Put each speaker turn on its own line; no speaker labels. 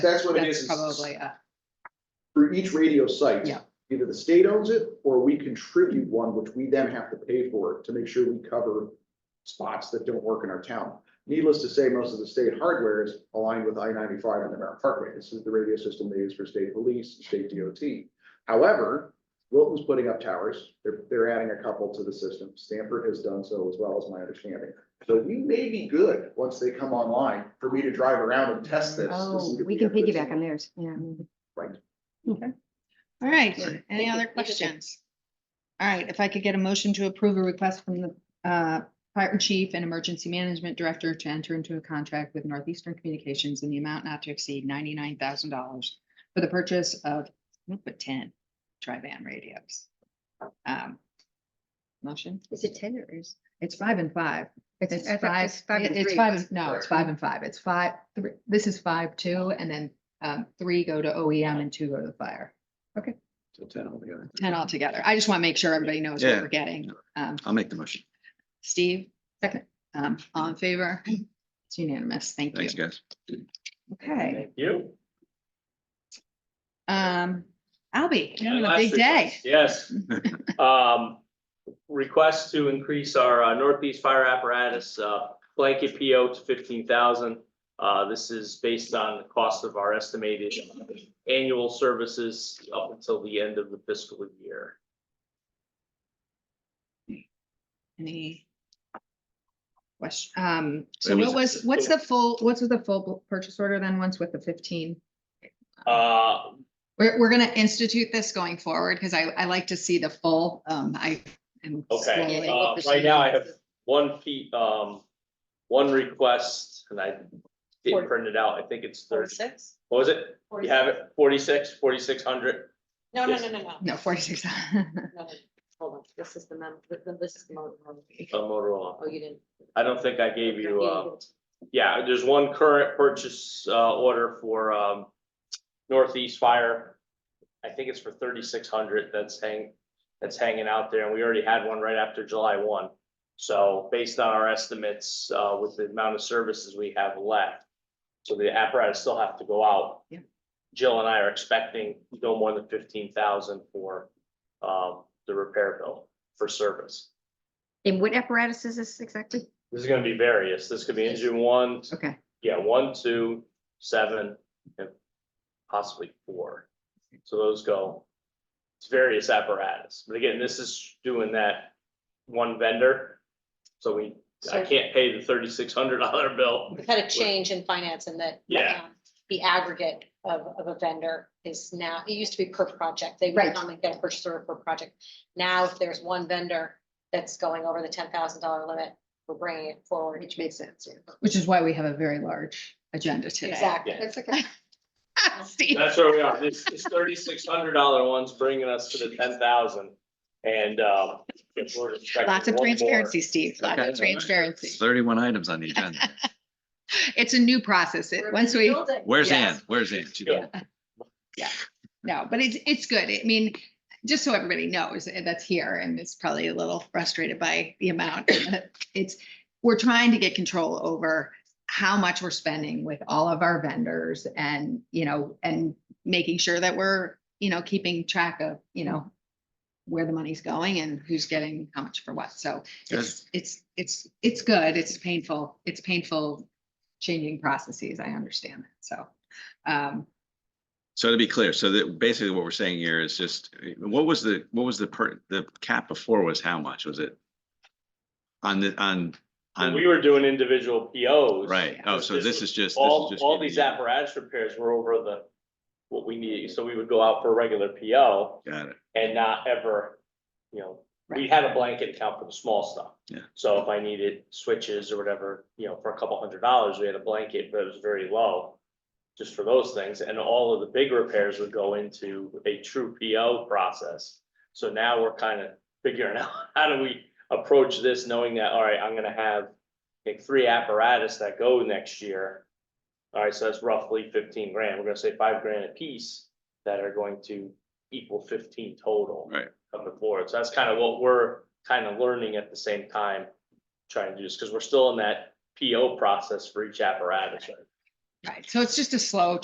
That's what it is.
That's
is
probably, uh,
For each radio site.
Yeah.
Either the state owns it or we contribute one, which we then have to pay for to make sure we cover spots that don't work in our town. Needless to say, most of the state hardware is aligned with I ninety-five and the Merritt Parkway. This is the radio system they use for state police, state DOT. However, Wilton's putting up towers. They're, they're adding a couple to the system. Stanford has done so as well, as my understanding. So we may be good once they come online for me to drive around and test this.
Oh, we can piggyback on theirs, yeah.
all right,
Sorry.
any
Thank
other
you.
questions? All right, if I could get a motion to approve a request from the uh, fire chief and emergency management director to enter into a contract with Northeastern Communications in the amount not to exceed ninety-nine thousand dollars for the purchase of, we'll put ten tri-band radios. Um, Motion,
Is it ten or is?
it's five and five. It's
I thought
five,
it's five
it-
and
it's
three
five,
was
and no, it's
four.
five and five. It's five, three, this is five, two, and then um, three go to OEM and two go to the fire.
So ten altogether.
Ten altogether. I just want to make sure everybody knows what
Yeah.
we're getting. Um,
I'll make the motion.
Steve? Second. Um, all in favor? It's unanimous. Thank you.
Thanks, guys.
Okay,
You?
um, Albie,
Yeah,
having a
last
big day.
request, Yes. Um, request to increase our uh, Northeast Fire Apparatus, uh, blanket PO to fifteen thousand. Uh, this is based on the cost of our estimated annual services up until the end of the fiscal year.
Any question? Um, so
It
what
was-
was, what's the full, what's the full purchase order then? Once with the fifteen?
Uh,
We're, we're gonna institute this going forward, because I, I like to see the full, um, I am.
okay,
slowly-
uh, right now I have one fee, um, one request and I didn't print it out. I think it's thirty.
Forty-six?
What was it? You have it? Forty-six, forty-six hundred?
No, no,
Yes.
no, no, no.
No, forty-six.
No, no. Hold on, this is the mem, th- th- this is the mo- mo-
A Motorola.
Oh, you didn't.
I don't think I gave you,
Yeah,
uh, yeah, there's one current purchase, uh, order for, um, Northeast Fire. I think it's for thirty-six hundred that's hang, that's hanging out there, and we already had one right after July one. So based on our estimates, uh, with the amount of services we have left, so the apparatus still have to go out.
Yeah.
Jill and I are expecting no more than fifteen thousand for, um, the repair bill for service.
And what apparatus is this exactly?
This is gonna be various. This could be engine one,
Okay,
yeah, one, two, seven, and possibly four. So those go, it's various apparatus. But again, this is doing that one vendor. So we, I
So-
can't pay the thirty-six hundred dollar bill.
We've had a change in finance and that.
Yeah.
um, The aggregate of, of a vendor is now, it used to be per project. They would
Right.
normally get a purchase order per project. Now, if there's one vendor that's going over the ten thousand dollar limit, we're bringing it forward.
Which makes sense. yeah.
which is why we have a very large agenda today.
Exactly.
That's okay.
Steve.
That's where we are. This, this thirty-six hundred dollar one's bringing us to the ten thousand. And, um. if we're expecting
Lots of
one more-
transparency, Steve, lots of
Okay, all right. It's
transparency.
Thirty-one items on the agenda.
It's a new process. It, once we,
Where's
Yes.
Ann? Where's Ann? She-
Yeah.
no, but it's, it's good. I mean, just so everybody knows eh, that's here and it's probably a little frustrated by the amount. It's, we're trying to get control over how much we're spending with all of our vendors and, you know, and making sure that we're, you know, keeping track of, you know, where the money's going and who's getting how much for what. So
Good.
it's, it's, it's, it's good. It's painful. It's painful changing processes. I understand that. So, um,
So to be clear, so that basically what we're saying here is just, what was the, what was the per, the cap before was how much? Was it? On the, on,
When
on,
We were doing individual POs.
right. Oh, so
This
this
was
is just. this is
All,
just
all
giving
these
you-
apparatus repairs were over the, what we need, so we would go out for a regular PO
Got it.
and not ever, you know, we had a blanket account for the small stuff.
Yeah.
So if I needed switches or whatever, you know, for a couple hundred dollars, we had a blanket, but it was very low. Just for those things, and all of the big repairs would go into a true PO process. So now we're kind of figuring out, how do we approach this, knowing that, all right, I'm gonna have like three apparatus that go next year. All right, so that's roughly fifteen grand. We're gonna say five grand a piece that are going to equal fifteen total.
Right.
Coming forward. So that's kind of what we're kind of learning at the same time, trying to do this, because we're still in that PO process for each apparatus. right?
Right, so it's just a slow